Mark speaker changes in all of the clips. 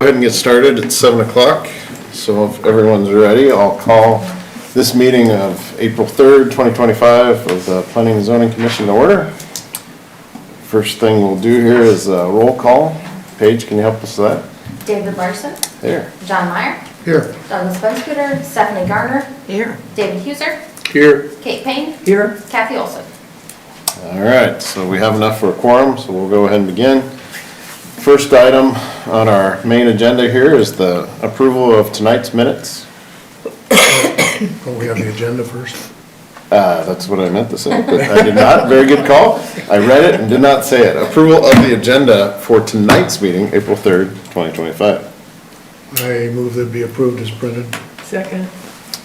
Speaker 1: ahead and get started. It's seven o'clock, so if everyone's ready, I'll call this meeting of April third, twenty twenty-five of the Planning and Zoning Commission to order. First thing we'll do here is a roll call. Paige, can you help us with that?
Speaker 2: David Larson,
Speaker 1: There.
Speaker 2: John Meyer,
Speaker 1: Here.
Speaker 2: Douglas Bumscooter, Stephanie Garner,
Speaker 3: Here.
Speaker 2: David Huser,
Speaker 1: Here.
Speaker 2: Kate Payne,
Speaker 3: Here.
Speaker 2: Kathy Olson.
Speaker 1: All right, so we have enough for a quorum, so we'll go ahead and begin. First item on our main agenda here is the approval of tonight's minutes.
Speaker 4: Oh, we have the agenda first?
Speaker 1: Uh, that's what I meant to say, but I did not. Very good call. I read it and did not say it. Approval of the agenda for tonight's meeting, April third, twenty twenty-five.
Speaker 4: I move that it be approved as printed.
Speaker 3: Second.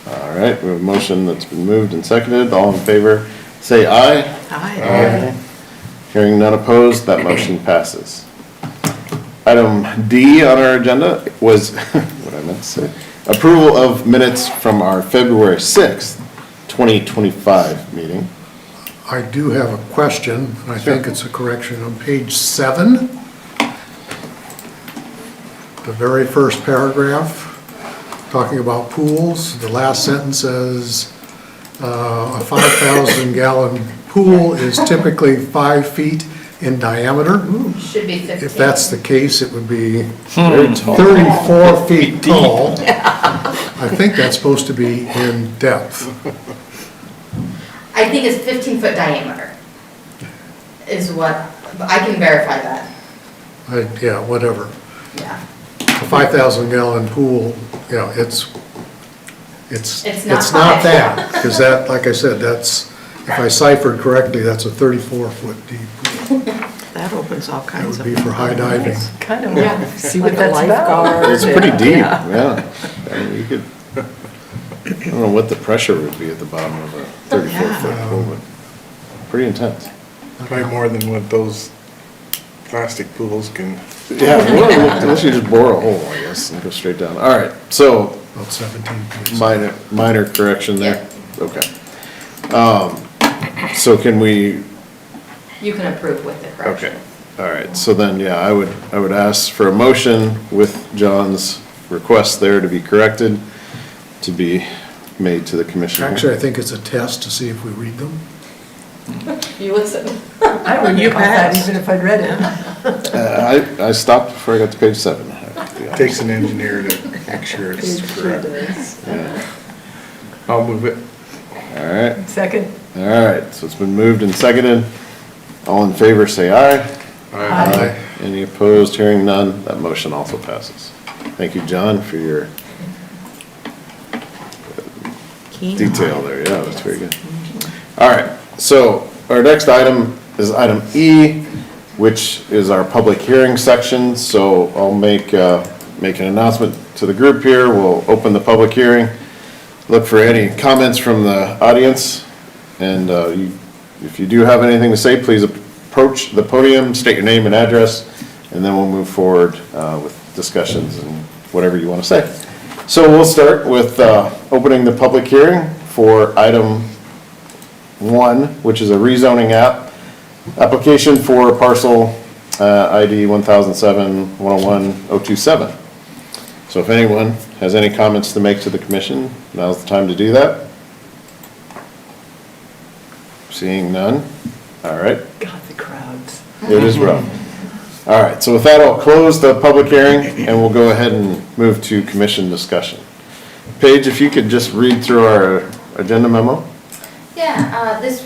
Speaker 1: All right, we have a motion that's been moved and seconded. All in favor, say aye.
Speaker 3: Aye.
Speaker 1: Hearing none opposed, that motion passes. Item D on our agenda was, what I meant to say, approval of minutes from our February sixth, twenty twenty-five meeting.
Speaker 4: I do have a question, and I think it's a correction. On page seven, the very first paragraph, talking about pools, the last sentence says, uh, a 5,000 gallon pool is typically five feet in diameter.
Speaker 2: Should be 15.
Speaker 4: If that's the case, it would be
Speaker 1: Very tall.
Speaker 4: 34 feet tall. I think that's supposed to be in depth.
Speaker 2: I think it's 15-foot diameter is what, I can verify that,
Speaker 4: I- Yeah, whatever.
Speaker 2: yeah.
Speaker 4: A 5,000 gallon pool, you know, it's, it's,
Speaker 2: It's not
Speaker 4: it's not
Speaker 2: five.
Speaker 4: that. Because that, like I said, that's, if I ciphered correctly, that's a 34 foot deep.
Speaker 3: That opens all
Speaker 4: That
Speaker 3: kinds
Speaker 4: would
Speaker 3: of.
Speaker 4: be for high diving.
Speaker 3: Kind of,
Speaker 5: Yeah.
Speaker 3: see what
Speaker 5: Like
Speaker 3: the
Speaker 5: that's
Speaker 3: lifeguard.
Speaker 1: It's pretty deep, yeah. I mean, You could, I don't know what the pressure would be at the bottom of a thirty-four
Speaker 3: Yeah.
Speaker 1: foot pool, but pretty intense.
Speaker 6: Probably more than what those plastic pools can.
Speaker 1: Yeah, well, unless you just bore a hole, I guess, and go straight down. All right, so
Speaker 4: About 17 feet.
Speaker 1: minor, minor correction there. Okay. Um, so can we,
Speaker 2: You can approve with the
Speaker 1: okay,
Speaker 2: correction.
Speaker 1: all right, so then, yeah, I would, I would ask for a motion with John's request there to be corrected, to be made to the commission.
Speaker 4: Actually, I think it's a test to see if we read them.
Speaker 2: You listen.
Speaker 5: I wouldn't
Speaker 3: You
Speaker 5: have caught that
Speaker 3: passed.
Speaker 5: even if I'd read it.
Speaker 1: Uh, I, I stopped before I got to page seven. I have to be honest.
Speaker 6: Takes an engineer to make sure it's correct. I'll move it.
Speaker 1: All right,
Speaker 5: Second,
Speaker 1: all right, so it's been moved and seconded. All in favor, say aye.
Speaker 6: Aye.
Speaker 1: Any opposed, hearing none, that motion also passes. Thank you, John, for your
Speaker 3: Keen
Speaker 1: detail there, yeah, that's very good. All right, so our next item is item E, which is our public hearing section, so I'll make, uh, make an announcement to the group here, we'll open the public hearing, look for any comments from the audience, and uh, you- if you do have anything to say, please approach the podium, state your name and address, and then we'll move forward uh, with discussions and whatever you want to say. So we'll start with uh, opening the public hearing for item one, which is a rezoning app, application for parcel uh, ID 1007-101-027. So if anyone has any comments to make to the commission, now's the time to do that. Seeing none, all right,
Speaker 5: God, the crowds.
Speaker 1: it is rough. All right, so with that, I'll close the public hearing and we'll go ahead and move to commission discussion. Paige, if you could just read through our agenda memo?
Speaker 2: Yeah, uh, this